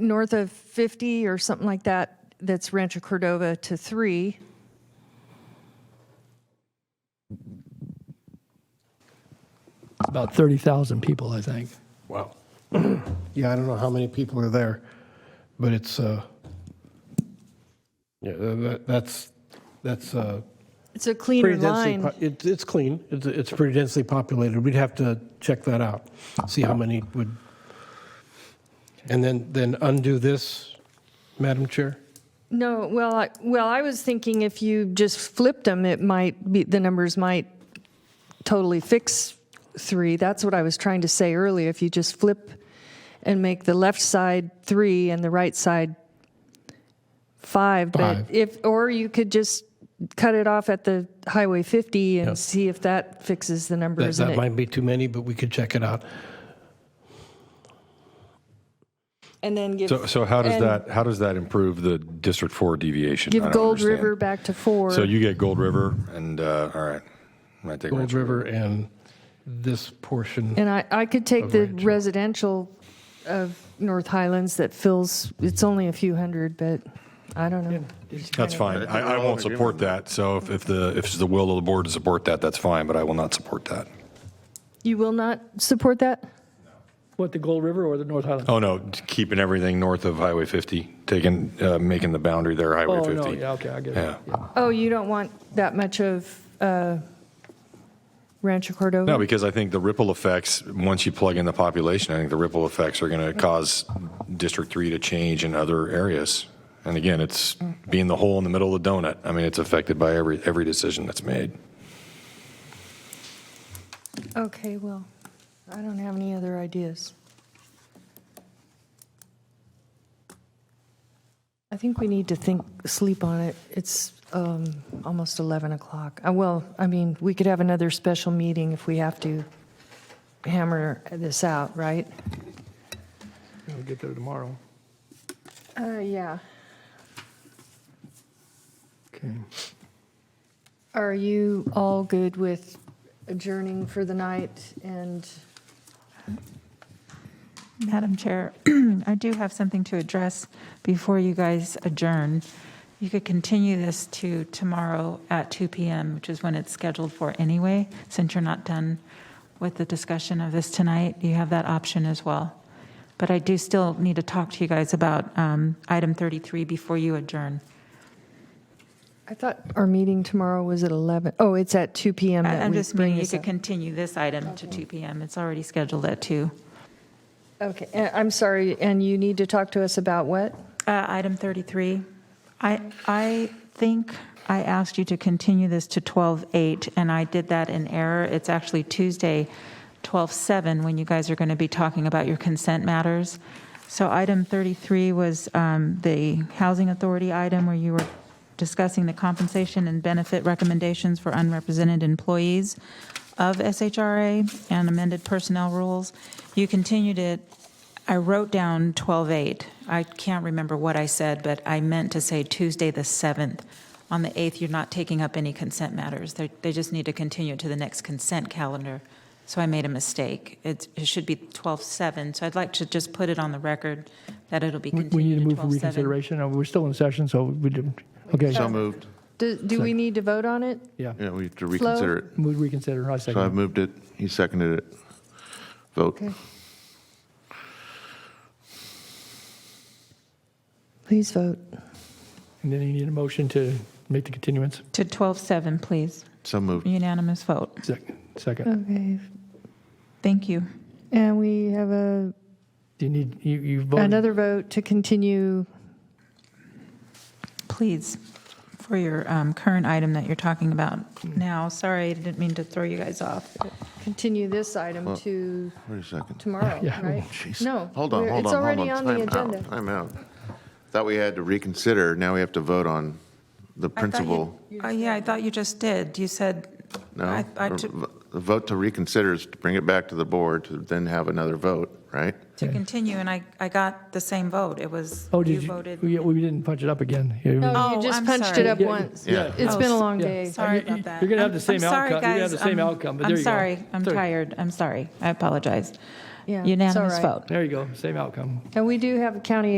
north of 50 or something like that, that's Rancho Cordova to 3. About 30,000 people, I think. Wow. Yeah, I don't know how many people are there, but it's, uh, yeah, tha- tha- that's, that's, uh, It's a pretty cleaner densely, line. po- it- it's clean, it's, it's pretty densely populated, we'd have to check that out, see how many would. And then, then undo this, Madam Chair? No, well, I, well, I was thinking if you just flipped them, it might be, the numbers might totally fix 3. That's what I was trying to say earlier. If you just flip and make the left side 3 and the right side 5. Five. But if, or you could just cut it off at the Highway 50 and see if that fixes the That, numbers. and that it- might be too many, but we could check it out. And then give. So, so how does and that, how does that improve the District 4 deviation? I Give don't Gold understand. River back to four. So you get Gold River and, uh, all right. I take Gold Rancho. River and this portion, And I, I could take the residential of North Highlands that fills, it's only a few hundred, but I don't know. That's fine. I, I won't support that. So if, if the, if it's the will of the board to support that, that's fine, but I will not support that. You will not support that? What, the Gold River or the North Highland? Oh, no, keeping everything north of Highway 50, taking, uh, making the boundary there, Highway Oh, 50. no, yeah, okay, I get it. Yeah. Oh, you don't want that much of uh, Rancho No, Cordova? because I think the ripple effects, once you plug in the population, I think the ripple effects are going to cause District 3 to change in other areas. And again, it's being the hole in the middle of the donut. I mean, it's affected by every, every decision that's made. Okay, well, I don't have any other ideas. I think we need to think, sleep on it. It's um, almost 11 o'clock. Uh, Well, I mean, we could have another special meeting if we have to hammer this out, right? We'll get there tomorrow. Uh, Yeah. Okay. Are you all good with adjourning for the night and? Madam Chair, I do have something to address before you guys adjourn. You could continue this to tomorrow at 2 PM, which is when it's scheduled for anyway, since you're not done with the discussion of this tonight. You have that option as well. But I do still need to talk to you guys about um, item 33 before you adjourn. I thought our meeting tomorrow was at 11. Oh, it's at 2 PM I- that I'm we just meaning bring you this could up. continue this item to 2 PM. It's already scheduled at 2. Okay, and I'm sorry, and you need to talk to us about what? Uh, Item 33, I, I think I asked you to continue this to 12:08, and I did that in error. It's actually Tuesday, 12:07, when you guys are going to be talking about your consent matters. So item 33 was um, the Housing Authority item where you were discussing the compensation and benefit recommendations for unrepresented employees of SHRA and amended personnel rules. You continued it I wrote down 12/8. I can't remember what I said, but I meant to say Tuesday, the 7th. On the 8th, you're not taking up any consent matters. They they just need to continue to the next consent calendar. So I made a mistake. It's- It should be 12/7, so I'd like to just put it on the record that it'll be We we need continued to to move for 12/7. reconsideration. Uh, We're still in session, so we didn't, okay. So moved. Do, do we need to vote on it? Yeah, Yeah, we have to reconsider it. move reconsider, I So I second. moved it. He seconded it. Vote. Okay. Please vote. And then you need a motion to make the continuance. To 12/7, please. So moved. Unanimous vote. Second, Uh, second. Okay, Thank you. and we have a, Do you need, you, you voted, another vote to continue. Please, for your um, current item that you're talking about Mm. now. Sorry, I didn't mean to throw you guys off. Continue this item to Wait a second. tomorrow, Yeah. right? Jeez. No. Hold on, we're- hold on, hold It's on. already on the Time out, agenda. Time out. Thought we had to reconsider. Now we have to vote on I thought the you- principal. Oh, yeah, I thought you just did. You said. No? I- I Or took- v- The vote to reconsider is to bring it back to the board to then have another vote, right? To continue, and I, I got the same vote. It was, oh, you did you, we- voted. we didn't punch it up again. Yeah, we- No, Oh, you just I'm punched it sorry. up Yeah, once. yeah. It's Oh, been a long yeah. day. Sorry You- about you- that. you're gonna have I'm- the same I'm outcome. sorry, You're gonna have guys. the same I'm- outcome, but there you go. I'm sorry, I'm Sorry. tired, I'm sorry. I apologize. Yeah, it's all Unanimous right. vote. There you go, same outcome. And we do have a county